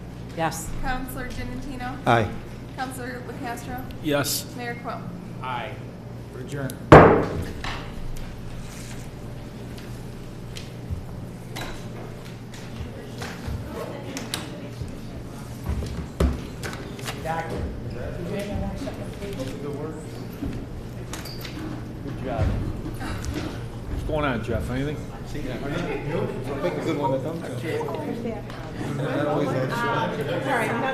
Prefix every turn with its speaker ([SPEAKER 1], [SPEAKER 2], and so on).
[SPEAKER 1] Yes.
[SPEAKER 2] Counselor Genatino?
[SPEAKER 3] Aye.
[SPEAKER 2] Counselor LaCastro?
[SPEAKER 4] Yes.
[SPEAKER 2] Mayor Quill?
[SPEAKER 4] Aye. Adjourn. Good job. What's going on, Jeff? Anything?
[SPEAKER 3] Make a good one, a thumbs up. Always that short.